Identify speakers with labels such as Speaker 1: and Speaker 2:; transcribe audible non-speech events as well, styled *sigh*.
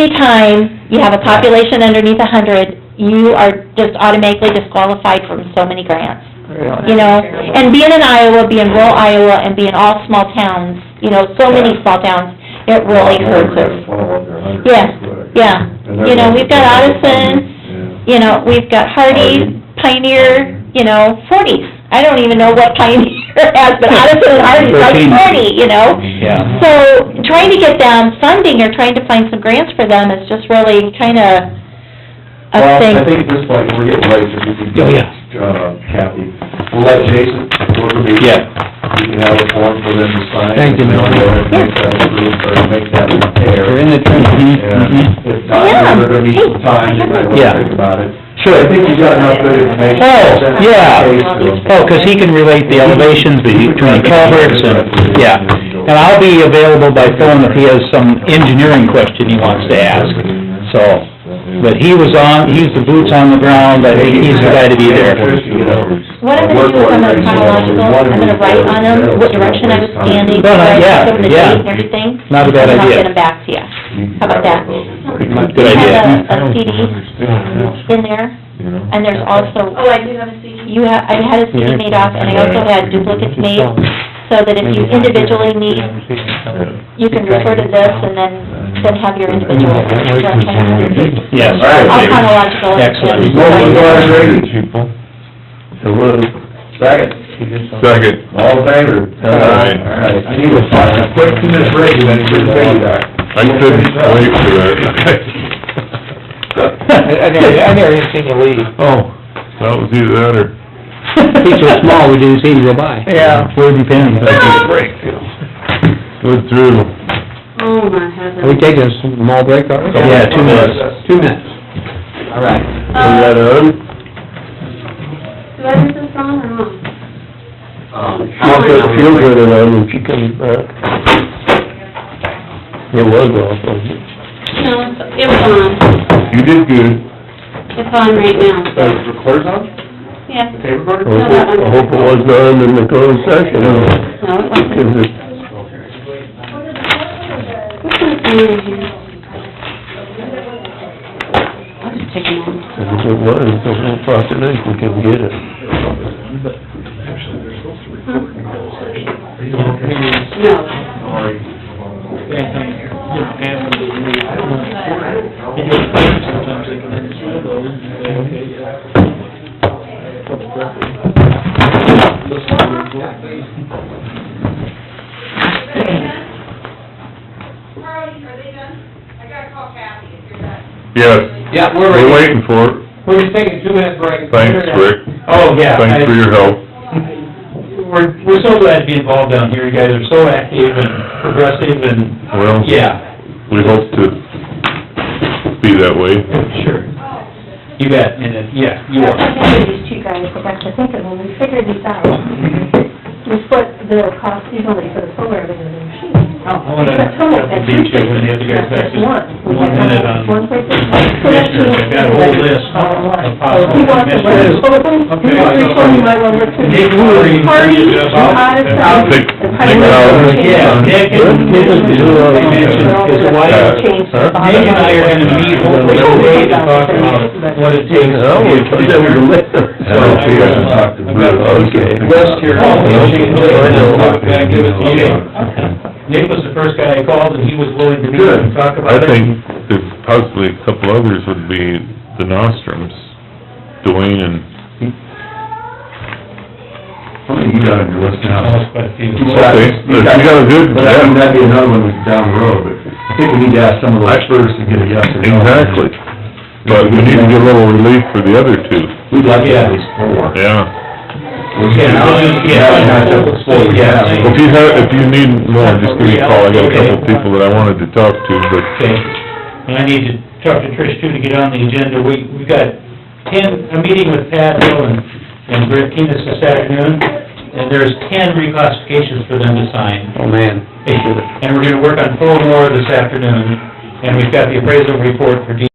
Speaker 1: anytime you have a population underneath a hundred, you are just automatically disqualified from so many grants, you know? And being in Iowa, being rural Iowa, and being all small towns, you know, so many small towns, it really hurts us. Yeah, yeah. You know, we've got Addison, You know, we've got Hardy, Pioneer, you know, forties. I don't even know what Pioneer *laughs* has, but Addison and Hardy's like
Speaker 2: Thirteen.
Speaker 1: forty, you know?
Speaker 2: Yeah.
Speaker 1: So, trying to get them funding or trying to find some grants for them is just really kinda a
Speaker 3: Well, I
Speaker 1: thing.
Speaker 3: think at this point, we're getting late, if we can,
Speaker 2: Oh, yeah.
Speaker 3: uh, Kathy, we'll let Jason work with me.
Speaker 2: Yeah.
Speaker 3: We can have a form for them to sign.
Speaker 2: Thank you,
Speaker 3: And uh,
Speaker 2: Melanie.
Speaker 3: they'll Make that approve, or uh, make that repair.
Speaker 2: You're in the trenches.
Speaker 3: And if not,
Speaker 1: Yeah.
Speaker 3: we're gonna need some time, you might
Speaker 2: Yeah.
Speaker 3: wanna think about it. Sure. I think you got enough good information.
Speaker 2: Oh, yeah. Oh, 'cause he can relate the elevations between culverts and, yeah. And I'll be available by phone if he has some engineering question he wants to ask, so. But he was on, he's the boots on the ground, I think he's the guy to be there.
Speaker 1: What I'm gonna do is I'm gonna chronological, I'm gonna write on them what direction I was standing,
Speaker 2: No, no,
Speaker 1: where I
Speaker 2: yeah,
Speaker 1: took the
Speaker 2: yeah.
Speaker 1: date and everything.
Speaker 2: Not a bad
Speaker 1: And I'll
Speaker 2: idea.
Speaker 1: get them back to you. How about that?
Speaker 2: Good
Speaker 1: I
Speaker 2: idea.
Speaker 1: have a- a CD in there, and there's also
Speaker 4: Oh, I do have a CD.
Speaker 1: You ha I had a CD made up, and I also had duplicates made, so that if you individually need, you can refer to this and then, then have your individual.
Speaker 2: Yes.
Speaker 1: All chronological.
Speaker 2: Excellent.
Speaker 3: Motion to adjourn. Second.
Speaker 5: Second.
Speaker 3: All in favor?
Speaker 5: Aye.
Speaker 3: All right, I need a five, a quick minute break, and then we'll bring you back.
Speaker 5: I couldn't wait for
Speaker 3: *laughs*
Speaker 5: that.
Speaker 2: I never- I never even
Speaker 3: seen you leave.
Speaker 5: Oh, that was either that or...
Speaker 2: *laughs* He's so small, we didn't see him go by.
Speaker 3: Yeah.
Speaker 2: Where'd he been?
Speaker 3: break.
Speaker 5: Good through.
Speaker 4: Oh, my heaven.
Speaker 2: taking a small break already? Yeah, two minutes. Two minutes.
Speaker 3: All right.
Speaker 5: Is that on?
Speaker 4: Do I have this on or not?
Speaker 6: Uh,
Speaker 5: Not that feel good at all when she comes back. It was off, wasn't it?
Speaker 4: No, it's, it was on.
Speaker 5: You did good.
Speaker 4: It's on right now.
Speaker 3: Uh, recorder's on?
Speaker 4: Yeah.
Speaker 3: Tape recorder?
Speaker 5: I hope it- I hope it wasn't on in the closed session.
Speaker 4: No, it
Speaker 5: Is
Speaker 4: wasn't.
Speaker 5: it-
Speaker 4: What's my phone in here? I'll just take them all.
Speaker 5: If it was, the whole population can get it. Hmm.
Speaker 4: No.
Speaker 7: Carly, are they done? I gotta call Kathy if you're done.
Speaker 5: Yes.
Speaker 2: Yeah, we're
Speaker 5: We're
Speaker 2: ready.
Speaker 5: waiting for it.
Speaker 2: We're just taking a two-minute break.
Speaker 5: Thanks, Rick.
Speaker 2: Oh, yeah.
Speaker 5: Thanks for your help.
Speaker 2: We're, we're so glad to be involved down here, you guys are so active and progressive and,
Speaker 5: Well,
Speaker 2: yeah,
Speaker 5: we hope to be that way.
Speaker 2: sure. You bet, and, it- yeah, you are.
Speaker 6: These two guys, but I to think of, when we figured this out, we split the cost evenly for the solar and the machine.
Speaker 2: I wanna,
Speaker 6: But total,
Speaker 2: have to
Speaker 6: that's
Speaker 2: beat
Speaker 6: two
Speaker 2: you when the other guys back,
Speaker 6: places, not just
Speaker 2: just
Speaker 6: one. We
Speaker 2: one minute
Speaker 6: had
Speaker 2: on
Speaker 6: One place.
Speaker 2: commissioners, I've got a whole list of
Speaker 6: So he
Speaker 2: possible
Speaker 6: wants to work
Speaker 2: commissioners.
Speaker 6: with Sullivan, he wants to work with Sullivan,
Speaker 2: Nick,
Speaker 6: he
Speaker 2: who
Speaker 6: wants
Speaker 2: are you-
Speaker 6: to Hardy,
Speaker 2: you just off?
Speaker 6: Addison,
Speaker 5: Nick-
Speaker 6: and
Speaker 5: Nick
Speaker 6: Pioneer.
Speaker 5: Bowers.
Speaker 2: Yeah, Nick and-
Speaker 6: They're all
Speaker 2: Nick and his wife.
Speaker 6: changed.
Speaker 5: Huh?
Speaker 2: Nick and I are gonna meet hopefully today to talk about what it takes. to
Speaker 5: Oh,
Speaker 2: be
Speaker 5: we
Speaker 2: a
Speaker 5: thought that was a
Speaker 2: commissioner.
Speaker 5: list.
Speaker 3: don't see us talk to Bruce.
Speaker 5: Okay.
Speaker 2: West here.
Speaker 3: Oh,
Speaker 2: Nick was the first guy I called, and he was willing to meet
Speaker 5: Good.
Speaker 2: and talk
Speaker 5: I
Speaker 2: about it.
Speaker 5: think there's possibly a couple others would be the Nostrums, Dwayne and,
Speaker 3: You got on your list now.
Speaker 2: Oh, quite a few.
Speaker 5: Okay, you got a good-
Speaker 3: But I think that'd be another one that's down the road, but I think we need to ask some of those first to get a yes or no.
Speaker 5: exactly. But we need to get a little relief for the other two,
Speaker 3: We'd like to have these four.
Speaker 5: yeah.
Speaker 3: We can-
Speaker 2: Yeah.
Speaker 3: Yeah, not just four, yeah.
Speaker 5: If you have, if you need more, just give me a call, I got a couple of people that I wanted to talk to, but,
Speaker 2: Okay, and I need to talk to Trish too to get on the agenda. We, we've got ten, a meeting with Pat Hill and, and Brett Keenest this afternoon, and there's ten reclassifications for them to sign.
Speaker 3: Oh, man.
Speaker 2: And we're gonna work on four more this afternoon, and we've got the appraisal report for D